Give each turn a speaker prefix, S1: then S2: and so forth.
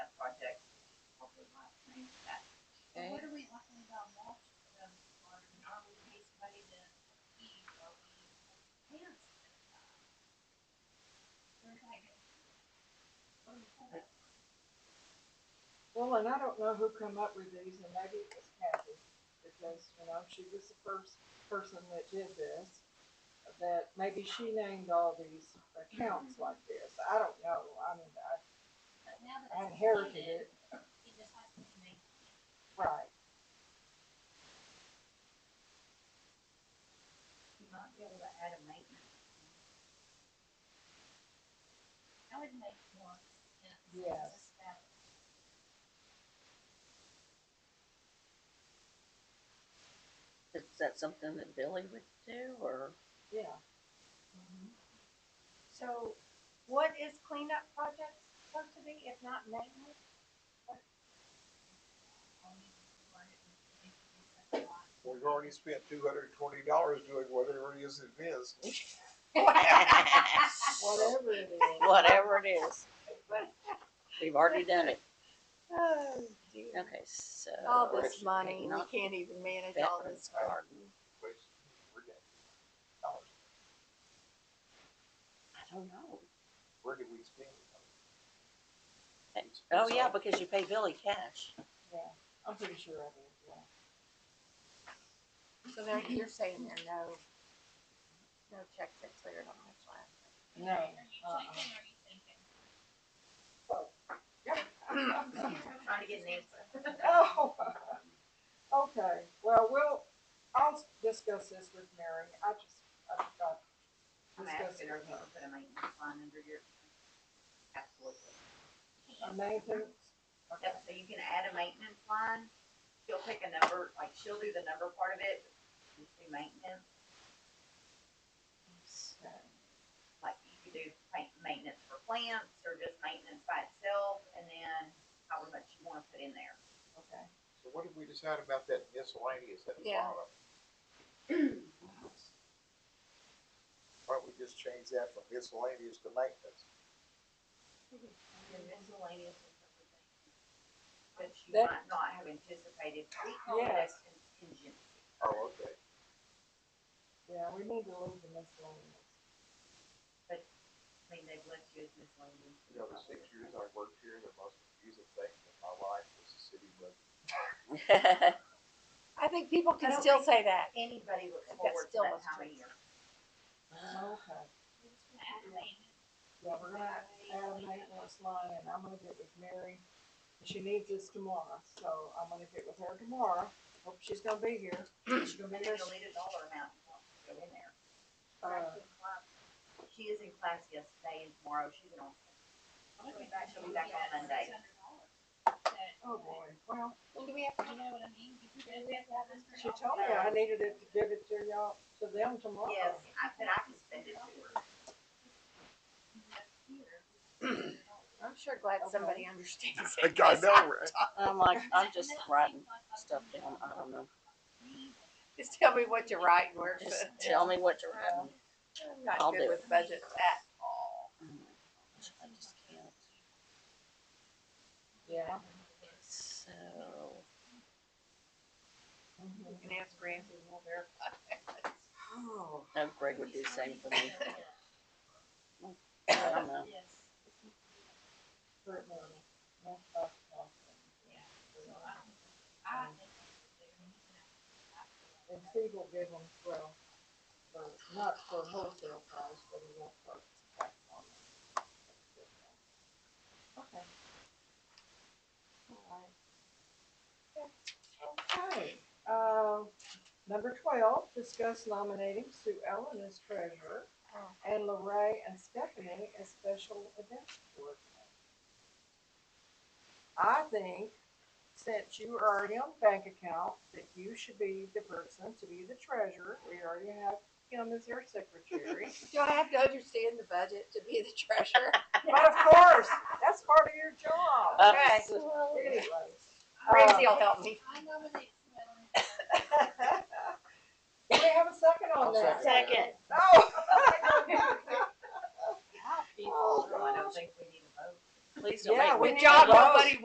S1: Um,
S2: Well, and I don't know who come up with these, and maybe it was Kathy, because, you know, she was the first person that did this. That maybe she named all these accounts
S3: Mm-hmm.
S2: like this. I don't know. I mean, I-
S1: But now that
S2: I
S1: it's
S2: inherited
S1: included,
S2: it.
S1: it just has to be made.
S2: Right.
S1: You might be able to add a maintenance. I would make once. and
S2: Yes.
S1: just have it.
S4: Is that something that Billy would do or?
S2: Yeah.
S3: So what is cleanup projects supposed to be, if not maintenance?
S1: Only word it would be a lot.
S5: We've already spent two hundred and twenty dollars doing whatever it is it is.
S2: Whatever it is.
S4: Whatever it is. We've already done it.
S6: Oh, dear.
S4: Okay, so.
S6: All this money, we
S4: Not
S6: can't even manage all
S4: Veterans
S6: this.
S4: Garden.
S5: Waste three dollars.
S4: I don't know.
S5: Where did we spend?
S4: Oh, yeah, because you pay Billy cash.
S2: Yeah. I'm pretty sure I did, yeah.
S6: So there, you're saying there are no, no checks that cleared on this last.
S2: No.
S1: Are you
S2: uh-uh.
S1: checking or are you thinking?
S3: Trying to get an answer.
S2: Oh, okay, well, we'll, I'll discuss this with Mary, I just, I've got.
S3: I'm
S2: discuss
S3: asking
S2: it
S3: her
S2: with
S3: to put a maintenance line under your. Absolutely.
S2: her. Amazing, okay,
S3: Yep, so you can add a maintenance line, she'll pick a number, like she'll do the number part of it, you do maintenance, like you could do ma- maintenance for plants or just maintenance by itself, and then however much you wanna put in there.
S2: okay,
S5: So what did we decide about that miscellaneous at the
S6: Yeah.
S5: bottom? Why don't we just change that from miscellaneous to maintenance?
S3: Your miscellaneous is everything. That you
S2: That-
S3: might not have anticipated, we call that
S2: Yes.
S3: contingency.
S5: Oh, okay.
S2: yeah, we need to leave the miscellaneous.
S3: I mean, they've left you as miscellaneous.
S5: You know, the six years I worked here, the most confusing thing in my life was the city budget.
S6: I think people
S3: I
S6: can
S3: don't
S6: still
S3: think-
S6: say that.
S3: Anybody looks
S6: That's
S3: forward to
S6: still
S3: that
S6: what's
S3: time of
S6: true.
S3: year.
S2: Okay,
S1: We're just gonna add a maintenance.
S2: yeah, we're gonna add a maintenance line, and I'm gonna get with Mary, she needs this tomorrow, so I'm gonna get with her tomorrow, hope she's gonna be here, she's gonna
S3: And
S2: be
S3: then
S2: here,
S3: delete a dollar amount, you want to go in there.
S2: uh,
S3: um, She is in class yesterday and tomorrow, she's in on,
S1: I'll be
S3: She'll be back on Monday.
S2: oh boy, well,
S6: Well, do we have,
S1: You know what I mean? Because then we have to have this. for
S2: she
S1: all
S2: told me
S1: the-
S2: I needed it to give it to y'all, to them tomorrow.
S3: yes, I said I can send it to her.
S6: I'm sure glad
S2: Okay.
S6: somebody understands
S5: I
S6: it.
S5: got
S6: 'cause I
S5: no,
S4: I'm like, I'm just writing stuff down. I don't know.
S6: Just tell me what you write and where. to
S4: Just
S6: put it.
S4: tell me what you're writing.
S6: I'm not
S4: I'll
S6: good
S4: do
S6: with budgets at all.
S4: I just can't.
S2: Yeah.
S4: So,
S2: Mm-hmm.
S6: You can ask Ramsey, we'll verify.
S2: Oh,
S4: no, Greg would do the same for me. I don't know.
S1: Yes.
S2: Kurt Warner. That's us, Austin.
S1: Yeah. So I don't, I think that's what they're gonna do.
S2: And Steve will give them twelve, for not for wholesale price, but he won't put tax on it. Okay. Alright. Okay, uh, number twelve, discuss nominating Sue Ellen as treasurer
S6: Oh.
S2: and Lorraine and Stephanie as special events coordinator. I think since you are already on the bank account, that you should be the person to be the treasurer. We already have him as your secretary.
S6: Do I have to understand the budget to be the treasurer?
S2: But of course, that's part of your
S4: Uh,
S2: job.
S6: Okay.
S2: Anyway,
S6: Ramsey will help me.
S1: I nominate Sue Ellen.
S2: Do we have a second on
S5: I'll
S2: that?
S5: Second.
S2: No.
S3: People, Oh, I don't think we need a vote.
S4: Please don't
S2: Yeah,
S4: make me
S2: we
S6: Good
S2: need
S6: job,
S2: a vote.
S6: nobody